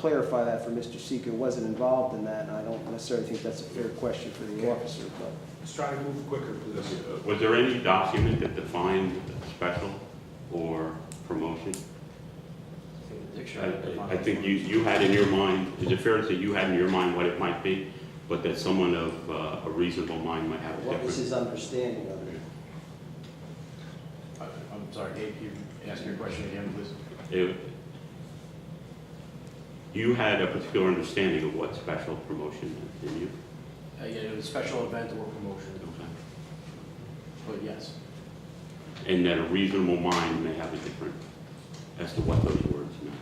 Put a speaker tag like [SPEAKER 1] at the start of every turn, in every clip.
[SPEAKER 1] clarify that for Mr. Seeker, wasn't involved in that, and I don't necessarily think that's a fair question for the officer, but
[SPEAKER 2] Let's try to move quicker, please.
[SPEAKER 3] Was there any document that defined special or promotion? I I think you, you had in your mind, is it fair to say you had in your mind what it might be, but that someone of uh, a reasonable mind might have a
[SPEAKER 1] what was
[SPEAKER 3] different?
[SPEAKER 1] his understanding of it?
[SPEAKER 2] uh,
[SPEAKER 4] I'm sorry, Dave, can you ask your question again, please?
[SPEAKER 3] It- You had a particular understanding of what special promotion meant, didn't you?
[SPEAKER 4] Uh, yeah, it was a special event or promotion, but yes.
[SPEAKER 3] And that a reasonable mind may have a different, as to what those words mean.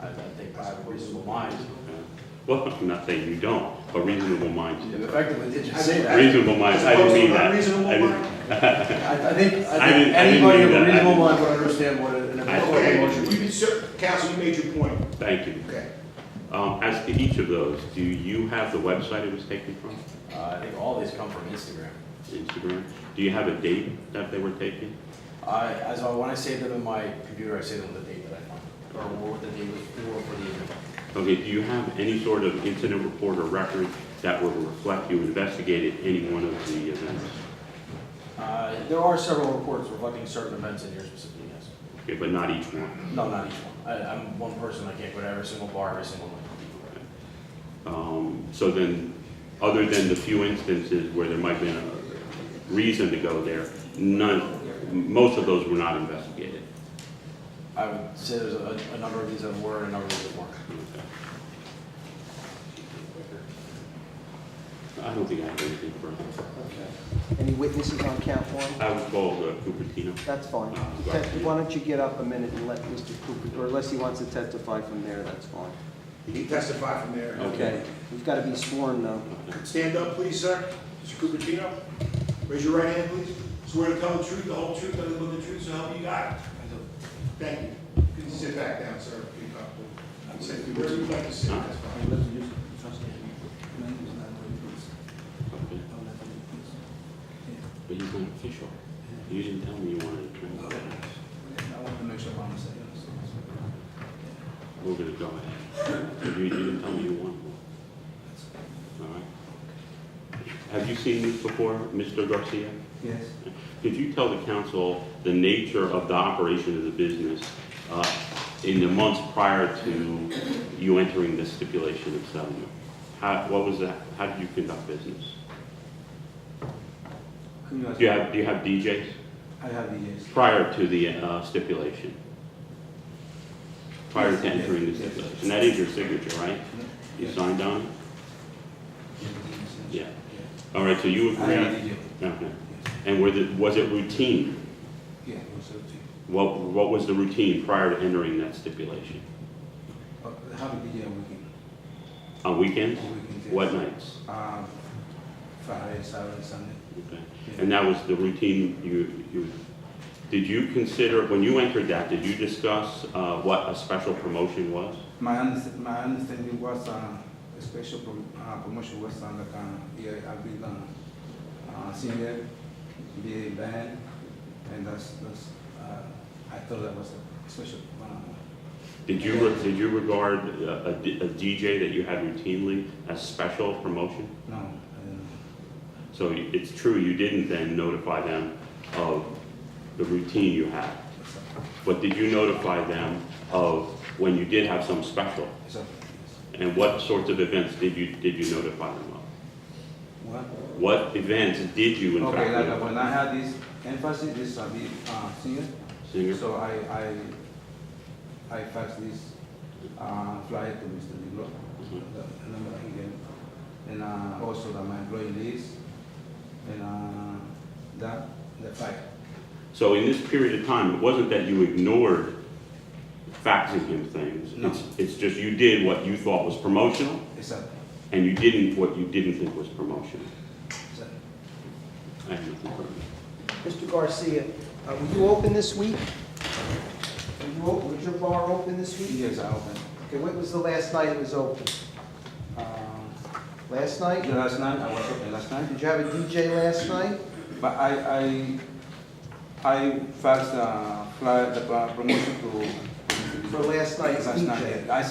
[SPEAKER 4] I, I think by a reasonable mind.
[SPEAKER 3] Okay? Well, I'm not saying you don't, but reasonable minds
[SPEAKER 4] You
[SPEAKER 3] differ.
[SPEAKER 4] effectively did just say that.
[SPEAKER 3] Reasonable minds, I didn't mean that.
[SPEAKER 2] Reasonable
[SPEAKER 3] I didn't-
[SPEAKER 2] mind.
[SPEAKER 4] I, I think,
[SPEAKER 3] I
[SPEAKER 4] I
[SPEAKER 3] didn't-
[SPEAKER 4] think
[SPEAKER 3] I didn't
[SPEAKER 4] anybody
[SPEAKER 3] mean
[SPEAKER 4] of
[SPEAKER 3] that. I
[SPEAKER 4] a reasonable
[SPEAKER 3] didn't-
[SPEAKER 4] mind would understand what an
[SPEAKER 3] Okay.
[SPEAKER 4] appropriate
[SPEAKER 2] Okay,
[SPEAKER 4] motion
[SPEAKER 2] you
[SPEAKER 4] would be.
[SPEAKER 2] can, sir, counsel, you made your point.
[SPEAKER 3] Thank you.
[SPEAKER 2] Okay.
[SPEAKER 3] Um, As to each of those, do you have the website it was taken from,
[SPEAKER 4] Uh, I think all these come from Instagram.
[SPEAKER 3] Instagram? Do you have a date that they were taken?
[SPEAKER 4] I, as I, when I save them in my computer, I save them with the date that I find, or what the date was for, for the event.
[SPEAKER 3] Okay, do you have any sort of incident report or record that would reflect you investigated any one of the events?
[SPEAKER 4] Uh, there are several reports reflecting certain events in here specifically, yes.
[SPEAKER 3] Okay, but not each one.
[SPEAKER 4] No, not each one. I, I'm one person, I can't go to every single bar, every single night.
[SPEAKER 3] Um, So then, other than the few instances where there might have been a reason to go there, none, most of those were not investigated.
[SPEAKER 4] I would say there's a, a number of these that were, and a number of these that weren't.
[SPEAKER 3] I don't think I have anything further.
[SPEAKER 1] Okay. Any witnesses on count one?
[SPEAKER 3] I would call uh, Cupertino.
[SPEAKER 1] That's fine. Okay, Why don't you get up a minute and let Mr. Cooper, or unless he wants to testify from there, that's fine.
[SPEAKER 2] You can testify from there.
[SPEAKER 3] Okay.
[SPEAKER 1] You've got to be sworn, though.
[SPEAKER 2] Stand up, please, sir. Mr. Cupertino, raise your right hand, please. Swear to tell the truth, the whole truth, nothing but the truth, so help you God. Thank you. You can sit back down, sir, if you're comfortable. You can Sit wherever you'd like to sit, that's fine.
[SPEAKER 3] Okay. But he's not official. You didn't tell me you wanted to drink. We're gonna go ahead. You you didn't tell me you wanted one. All right. Have you seen this before, Mr. Garcia?
[SPEAKER 5] Yes,
[SPEAKER 3] Could you tell the council the nature of the operation of the business uh, in the months prior to you entering the stipulation of settlement? How, what was that, how did you conduct business?
[SPEAKER 5] Who knows?
[SPEAKER 3] Do you have, do you have DJs
[SPEAKER 5] I have the yes.
[SPEAKER 3] prior to the uh, stipulation? Prior to entering the stipulation? That is your signature, right?
[SPEAKER 5] Mm-hmm.
[SPEAKER 3] You signed on? it? Yeah. All right, so you
[SPEAKER 5] I have
[SPEAKER 3] agreed?
[SPEAKER 5] the yes.
[SPEAKER 3] Okay. And were the, was it routine?
[SPEAKER 5] Yeah, what's up to you?
[SPEAKER 3] What, what was the routine prior to entering that stipulation?
[SPEAKER 5] Uh, How did the year weekend?
[SPEAKER 3] On weekends?
[SPEAKER 5] Weekends, yes.
[SPEAKER 3] What nights?
[SPEAKER 5] Um, Friday, Saturday, Sunday.
[SPEAKER 3] Okay.
[SPEAKER 5] Yeah.
[SPEAKER 3] And that was the routine you, you, did you consider, when you entered that, did you discuss uh, what a special promotion was?
[SPEAKER 5] My understanding, my understanding was, um, a special prom- uh, promotion was on like, um, yeah, I believe, um, uh, singer, be a band, and that's, that's, uh, I thought that was a special, um,
[SPEAKER 3] Did you, re- did you regard uh, a D- a DJ that you had routinely as special promotion?
[SPEAKER 5] no, uh,
[SPEAKER 3] So it's true, you didn't then notify them of the routine you had,
[SPEAKER 5] it's
[SPEAKER 3] but did you notify them of when you did have some special?
[SPEAKER 5] a, it's a, it's-
[SPEAKER 3] And what sorts of events did you, did you notify them of?
[SPEAKER 5] what?
[SPEAKER 3] What events did you in
[SPEAKER 5] Okay,
[SPEAKER 3] fact
[SPEAKER 5] like uh,
[SPEAKER 3] notify?
[SPEAKER 5] when I had this emphasis, this a bit uh, senior,
[SPEAKER 3] Singer?
[SPEAKER 5] so I, I, I fax this uh, flyer to Mr. Diblo, the number he gave, and uh, also that my employee list, and uh, that, the file.
[SPEAKER 3] So in this period of time, it wasn't that you ignored faxing him things.
[SPEAKER 5] No.
[SPEAKER 3] It's, it's just you did what you thought was promotional,
[SPEAKER 5] Exactly,
[SPEAKER 3] and you didn't what you didn't think was promotional.
[SPEAKER 5] exactly.
[SPEAKER 3] I have nothing further.
[SPEAKER 1] Mr. Garcia, uh, were you open this week? Were you, o- was your bar open this week?
[SPEAKER 5] Yes, I opened.
[SPEAKER 1] Okay, when was the last night it was open? Um,
[SPEAKER 5] Uh,
[SPEAKER 1] Last night?
[SPEAKER 5] the last night, I was open last night,
[SPEAKER 1] Did you have a DJ last night?
[SPEAKER 5] but I, I, I faxed the flyer, the promotion to.
[SPEAKER 1] For last night's
[SPEAKER 5] Last night,
[SPEAKER 1] DJ.
[SPEAKER 5] I said